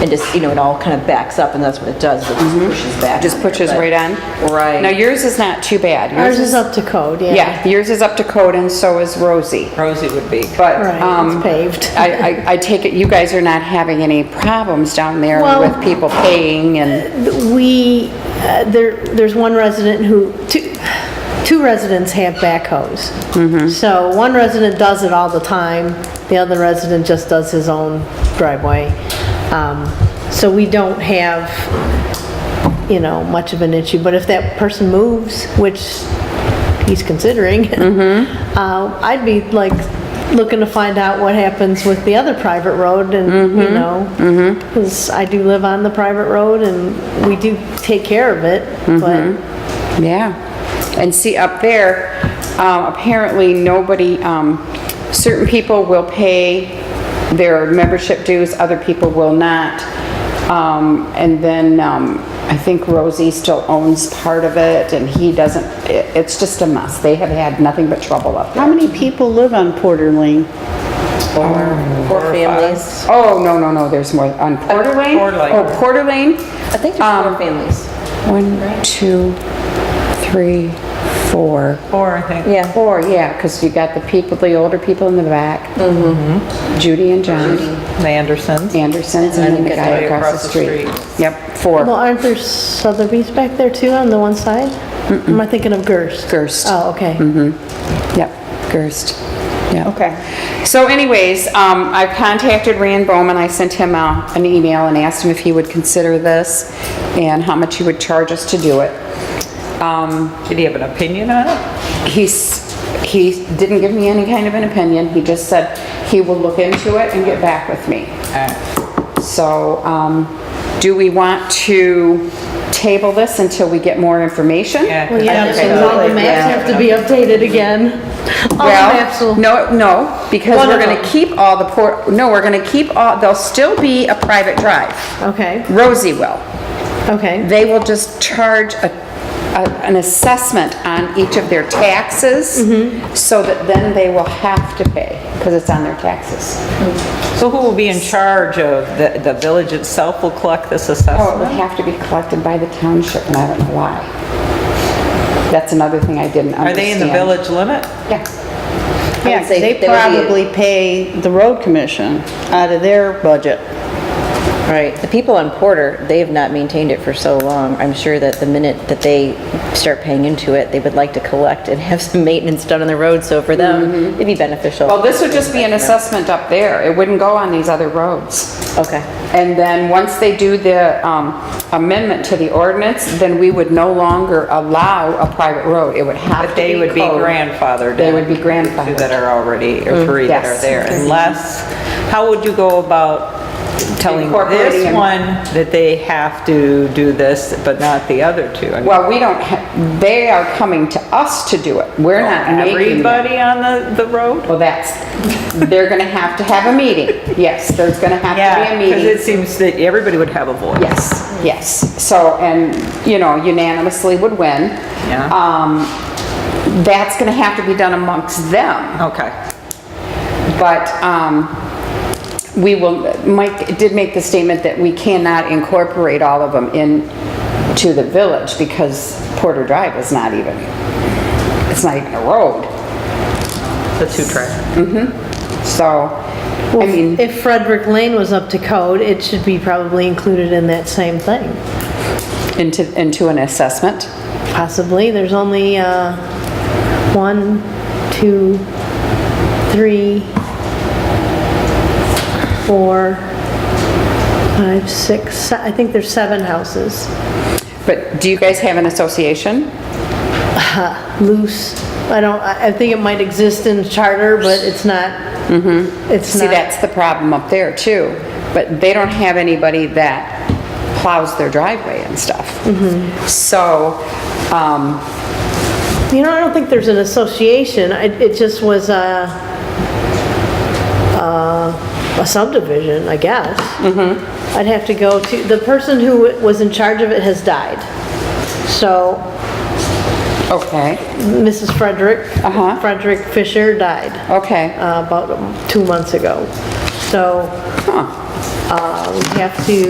and just, you know, it all kind of backs up, and that's what it does, it Mm-hmm. just pushes back. Just on there, pushes but- right on? Right. Now, yours is not too bad. Ours is up to code, yeah. Yeah, yours is up to code and so is Rosie. Rosie would be. But, Right, um... it's paved. I, I, I take it you guys are not having any problems down there Well- with people paying and... We, uh, there, there's one resident who, two, two residents have backhoes. So one resident does it all the time, the other resident just does his own driveway. Um, So we don't have, you know, much of an issue, but if that person moves, which he's considering, Mm-hmm. uh, I'd be like looking to find out what happens with the other private road and, Mm-hmm. you know, because I do live on the private road and we do take care of it, Mm-hmm. but Yeah. And see, up there, um, apparently, nobody, um, certain people will pay their membership dues, other people will not. Um, and then, um, I think Rosie still owns part of it, and he doesn't, it, it's just a mess. They have had nothing but trouble up there. How many people live on Porter Lane? Four families. Oh, no, no, no, there's more, on Porter Lane? Porter Lane. Oh, Porter Lane? I think there's four families. One, two, three, four. Four, I think. Yeah. Four, yeah, because you got the people, the older people in the back. Mm-hmm. Judy and John The Andersons. Andersons and then the guy Right across the street. Yep, well, four. aren't there Sotheby's back there too on the one side? Am I thinking of Gerst? Gerst. Mm-hmm. Oh, okay. Yep, Gerst. Yeah. Okay. So anyways, um, I contacted Rand Bowman. I sent him uh, an email and asked him if he would consider this and how much he would charge us to do it. Um, Did he have an opinion on it? He's, he didn't give me any kind of an opinion, he just said he will look into it and get back with me. So, um, do we want to table this until we get more information? Yeah. Well, yeah, Okay. so all the maps have to be updated again. All the maps Well, will, no, no, because One we're of gonna them. keep all the port, no, we're gonna keep all, there'll still be a private drive. okay, Rosie will. okay, They will just charge a, a- an assessment on each of their taxes, so that then they will have to pay, because it's on their taxes. So who will be in charge of, the, the village itself will collect this Oh, it would assessment? have to be collected by the township, and I don't know why. That's another thing I didn't Are understand. they in the village limit? Yeah. Yeah, say they there would be- probably pay the road commission out of their budget. Right, the people on Porter, they have not maintained it for so long. I'm sure that the minute that they start paying into it, they would like to collect and have some maintenance done on the road, so for them, it'd be beneficial. Well, Oh, this would just be an assessment up there. It wouldn't go on these other roads. Okay, And then, once they do the um, amendment to the ordinance, then we would no longer allow a private road. It would have to But be they would be code. grandfathered. They in. would be Two grandfathered. Mm-hmm. that are already, or three that yes. are there, unless, how would you go about telling Incorporating this them. one that they have to do this, but not the other two? I mean, Well, we don't, ha- they are coming to us to do it. We're not making them. Oh, Everybody on the, the road? Well, that's, they're gonna have to have a meeting. Yes, there's gonna have to Yeah, be a because it meeting. seems that everybody would have a voice. Yes, yes. So, and, you know, unanimously would win. Yeah. Um, that's gonna have to be done amongst them. Okay. But, um, we will, Mike did make the statement that we cannot incorporate all of them in to the village because Porter Drive is not even, it's not even a road. The two-track. So, I mean, if Frederick Lane was up to code, it should be probably included in that same thing, into, into an assessment. possibly, there's only, uh, one, two, three, four, five, six, se- I think there's seven houses, But do you guys have an association? loose, I don't, I I think it might exist in charter, but it's not, it's not. Mm-hmm. See, that's the problem up there too. But they don't have anybody that plows their driveway and stuff. Mm-hmm. So, um, You know, I don't think there's an association, I- it just was a, uh, a subdivision, I guess. Mm-hmm. I'd have to go to, the person who was in charge of it has died. So okay, Mrs. Frederick, Uh-huh. Frederick Fisher died okay. uh, about two months ago. So Huh. uh, we have to